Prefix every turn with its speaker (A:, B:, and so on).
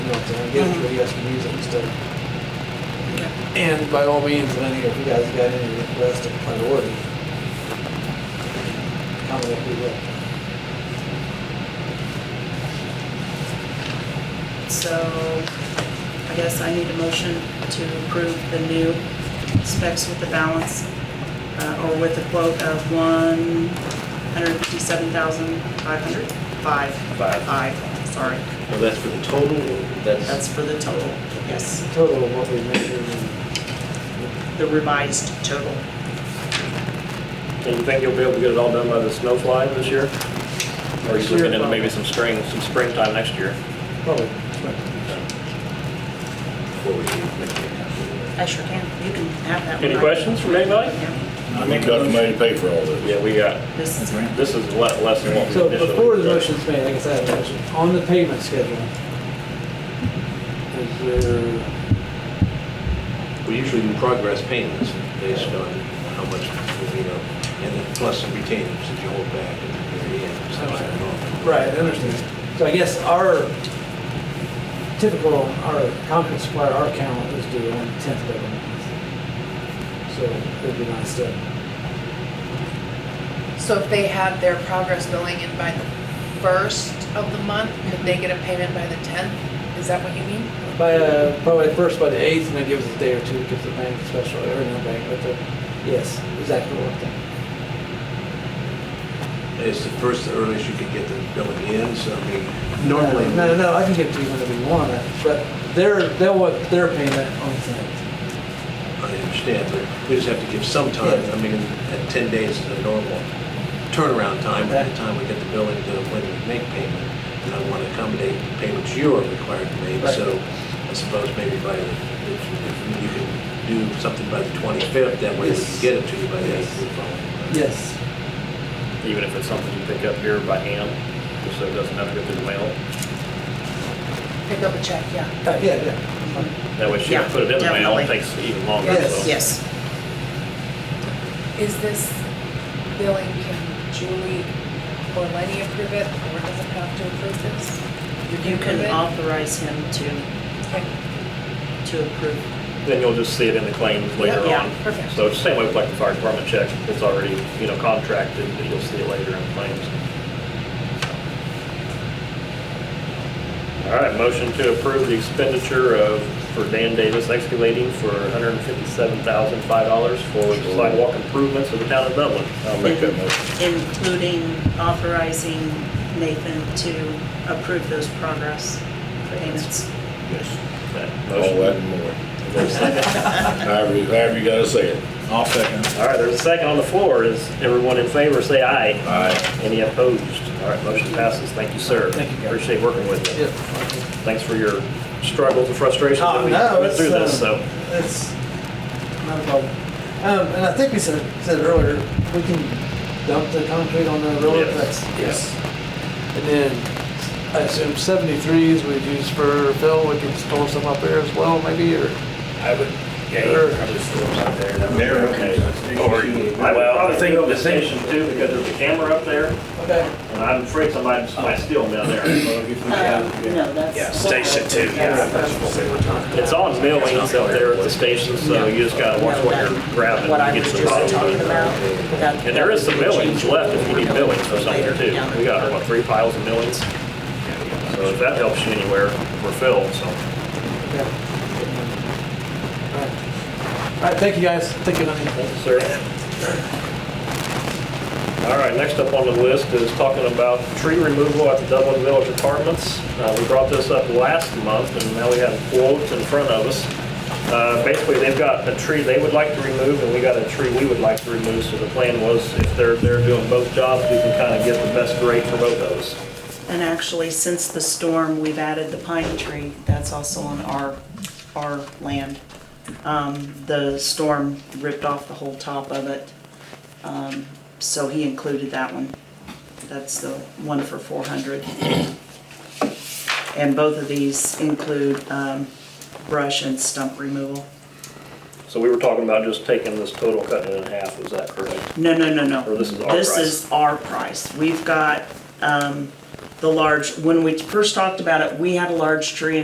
A: So I give it to you guys to use it instead.
B: Yeah.
A: And by all means, I think if you guys got any requests of priority, comment if you will.
B: So I guess I need a motion to approve the new specs with the balance, uh, or with a quote of one hundred fifty-seven thousand five hundred, five.
C: Five.
B: Five, sorry.
C: Well, that's for the total, or
B: That's
C: that's,
B: for the total, yes,
A: Total of what we measured and
B: the revised total.
D: And you think you'll be able to get it all done by the snowfly this year? Or are you looking into maybe some spring, some springtime next year?
A: probably.
C: what we should make it.
B: I sure can, you can have that one.
D: Any questions from anybody?
B: Yeah,
E: I mean, got the money to pay for all this.
D: Yeah, we got,
B: this is,
D: this is le- less than what we
A: So
D: initially.
A: before the motion's made, I guess I have a motion, on the payment schedule, is there,
C: We usually do progress payments based on how much, you know, and then plus some retainers that you hold back at the very end. so I don't know.
A: right, I understand. So I guess our typical, our conference supplier, our count is due on the tenth of every month. So it would be nice to,
F: So if they have their progress billing in by the first of the month, could they get a payment by the tenth? Is that what you mean?
A: by, uh, probably first by the eighth, and then give us a day or two, because the bank special, or no bank, but the, yes, exactly what I'm thinking.
C: It's the first, the earliest you can get the billing in, so I mean, normally.
A: No, no, no, I can get to you whenever you want it, but they're, they'll want their payment on time.
C: I understand, but we just have to give some time.
A: Yeah.
C: I mean, at 10 days is the normal turnaround time, by the time we get the billing to when we make payment. And I want to accommodate the payments you are required to make,
A: Right.
C: so I suppose maybe by, the- if if you can do something by the 25th, that way we
A: Yes.
C: can get it to you by the
A: Yes.
C: 8th of the following.
A: Yes,
D: Even if it's something you pick up here by hand, just so it doesn't have to go through the mail.
F: Pick up a check, yeah.
A: Uh, yeah, yeah.
D: That way she
B: Yeah,
D: can put it in the mail,
B: definitely.
D: it takes even longer.
A: Yes.
D: so.
B: yes,
F: Is this billing, can Julie or Lenny approve it, or does it have to approve this?
B: you can authorize him to,
F: Okay.
B: to approve.
D: Then you'll just see it in the claims later
B: Yeah,
D: on.
F: perfect.
D: So it's the same way with like the fire department check, it's already, you know, contracted, but you'll see it later in claims. All right, motion to approve the expenditure of, for Dan Davis excavating for $157,005 for sidewalk improvements of the town of Dublin. I'll make that motion.
B: Including authorizing Nathan to approve those progress payments.
E: Yes.
D: That
E: All that
D: motion.
E: and more.
D: Is there a second?
E: However, you- however you gotta say it. I'll second.
D: All right, there's a second on the floor. Is everyone in favor, say aye.
E: Aye.
D: Any opposed? All right, motion passes. Thank you, sir.
A: Thank you, guys.
D: Appreciate working with you.
A: yeah.
D: Thanks for your struggles and frustrations
B: Oh,
D: that we went through this,
B: uh,
D: so.
A: It's not a problem. Um, and I think we said, said earlier, we can dump the concrete on the road,
D: Yes.
A: that's. Yes. And then, I assume seventy-threes we'd use for fill, we could store some up there as well, maybe, or?
G: I would, yeah, you could probably store them out there. That would be
E: There,
G: okay. Or,
D: I-
G: well, I was thinking of the same.
D: station too, because there's a camera up there,
A: Okay.
D: and I'm afraid somebody might steal them down there.
B: No,
G: Yeah, station two, yeah. that's what they were talking about.
D: It's on mail lanes out there at the station, so you just gotta watch what you're grabbing.
B: What I
D: to
B: was
D: get
B: just
D: the
B: talking
D: problem.
B: about. that-
D: And there is some millings left if you need millings for something
B: Later,
D: too.
B: yeah.
D: We got, what, three piles of millings? So if that helps you anywhere, we're filled, so.
A: Yeah. All right, thank you guys, thank you, Lenny.
D: Thank you, sir. All right, next up on the list is talking about tree removal at the Dublin Village Apartments. Uh, We brought this up last month, and now we have quotes in front of us. Uh, Basically, they've got a tree they would like to remove, and we got a tree we would like to remove, so the plan was if they're, they're doing both jobs, we can kind of get the best rate for both of those.
B: And actually, since the storm, we've added the pine tree. That's also on our, our land. Um, The storm ripped off the whole top of it. Um, So he included that one. That's the one for 400. And both of these include um, brush and stump removal.
D: So we were talking about just taking this total, cutting it in half, is that correct?
B: No, no, no, no.
D: Or Oh, this is our
B: This
D: price?
B: is our price. We've got um, the large, when we first talked about it, we had a large tree